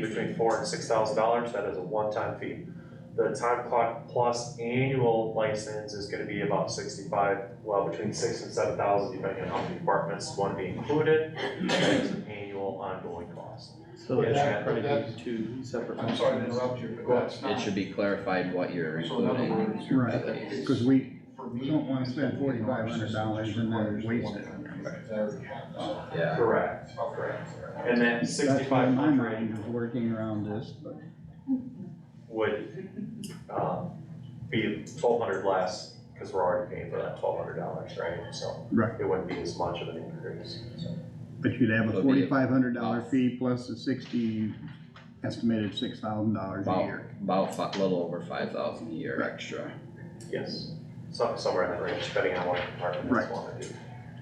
between four and six thousand dollars, that is a one-time fee. The time clock plus annual license is gonna be about sixty-five, well, between six and seven thousand, depending on how many departments want to be included. That is an annual ongoing cost. So it Yeah, should probably that's- be two separate. I'm sorry to interrupt you, but that's not. It should be clarified what you're So in other including. words, you're- Right, it's- Cause we, for me, we don't wanna spend $4,500 and then waste it. They already have that. Yeah, Correct. Correct. And then that's why sixty-five my hundred mind is working around this, but would, um, be twelve hundred less, cause we're already paying for that twelve hundred dollars, right? So. Right. It wouldn't be as much of an increase, so. But you'd have a It'll be- forty-five hundred dollar fee plus the sixty, estimated six thousand dollars a Wow. year. about fi- little over five thousand a year extra. Mm-hmm. Yes, some, somewhere in that range, depending on what department Right. that's wanna do.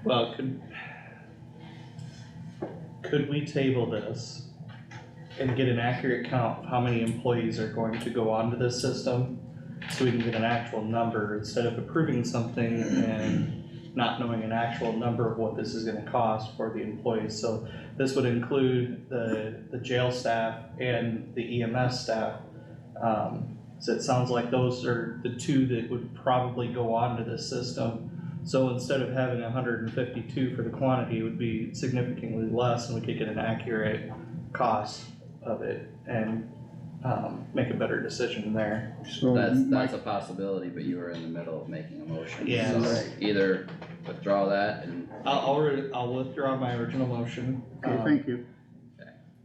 Well, could. Could we table this and get an accurate count of how many employees are going to go onto this system? So we can get an actual number instead of approving something and not knowing an actual number of what this is gonna cost for the employees. So this would include the, the jail staff and the EMS staff. Um, so it sounds like those are the two that would probably go onto this system. So instead of having hundred and fifty-two for the quantity, it would be significantly less and we could get an accurate cost of it and, um, make a better decision there. So That's, my, that's a possibility, but you were in the middle of making a motion. Yeah. so Right. Either withdraw that and I'll, I'll, re- I'll withdraw my original motion. okay, um, thank you.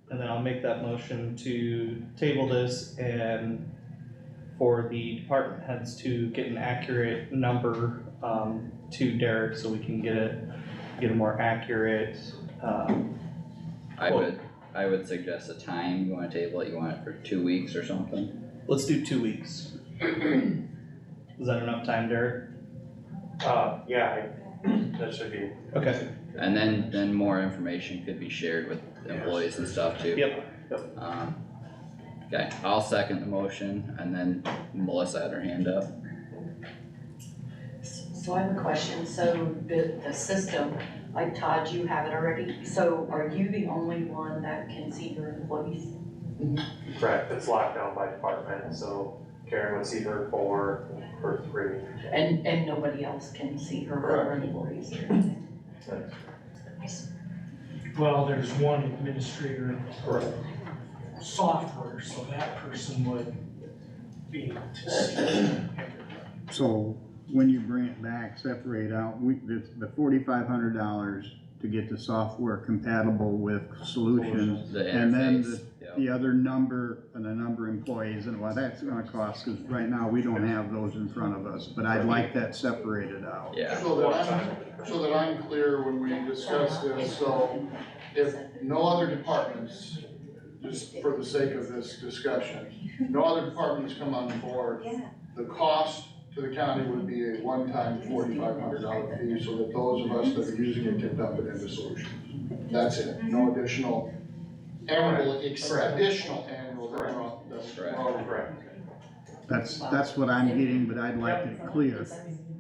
And then I'll make that motion to table this and for the department heads to get an accurate number, um, to Derek so we can get it, get a more accurate, um, I Cool. would, I would suggest a time, you wanna table it, you want it for two weeks or something? let's do two weeks. Is that enough time, Derek? Uh, yeah, I- that should be, Okay, And then, then more information could be shared with employees and stuff too. yep, Um, Okay, I'll second the motion and then Melissa had her hand up. So I have a question, so the, the system, like Todd, you have it already, so are you the only one that can see your employees? correct, it's locked down by department, so Karen would see her four, her three. And, and nobody else can see her or her employees? Well, there's one administrator in the software, so that person would be able to see everything. So when you bring it back, separate out, we, the, the forty-five hundred dollars to get the software compatible with solutions. The And then interface, yeah, The other number and the number of employees and what that's gonna cost, cause right now we don't have those in front of us, but I'd like that separated out. yeah, So that I'm, so that I'm clear when we discuss this, so if no other departments, just for the sake of this discussion, no other departments come on board, the cost to the county would be a one-time forty-five hundred dollar fee, so that those of us that are using it can dump it into solutions. That's it, no additional annual, ex- Correct. additional annual that we're all- that we're all- Correct. That's, that's what I'm getting, but I'd like it clear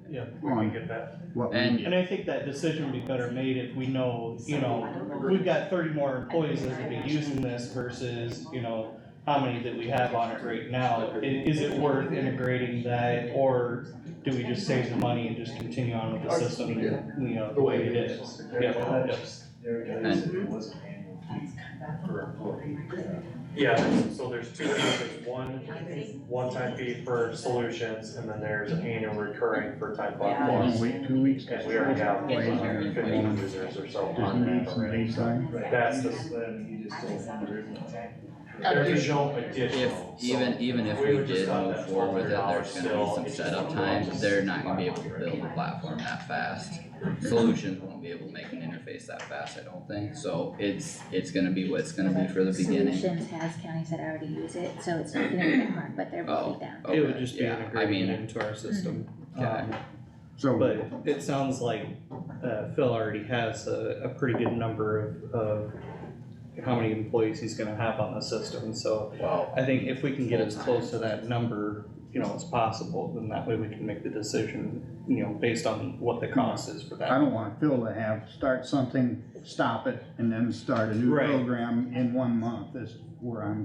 We can on get that, what we And- get. and I think that decision would be better made if we know, you know, we've got thirty more employees that are gonna be using this versus, you know, how many that we have on it right now, I- is it worth integrating that, or do we just save the money and just continue on with the system, you know, the way it is? Yeah, yes. And- yeah, so there's two, fees. there's one, one-time fee for solutions, and then there's an annual recurring for time clock Yeah. Wanna plus. wait two weeks? And we already have Wait. like fifty users or so Does on he need that some already. baseline? That's the additional, additional. if, even, even if We we would just did have move that forward with it, $1,200 there's gonna still. be some It's setup just- time, they're not gonna be able to build a platform that fast. Solutions won't be able to make an interface that fast, I don't think, so it's, it's gonna be what it's gonna be for the beginning. Solutions has counties that already use it, so it's not gonna be that hard, but they're Oh. broken down. It would Okay, just be yeah, I integrated mean, into our system. Okay. Um, So. But it sounds like, uh, Phil already has a, a pretty good number of, of how many employees he's gonna have on the system, so well, I think if we can get as close to that number, you know, as possible, then that way we can make the decision, you know, based on what the cost is for I that. don't want Phil to have, start something, stop it, and then start a new Right. program in one month is where I'm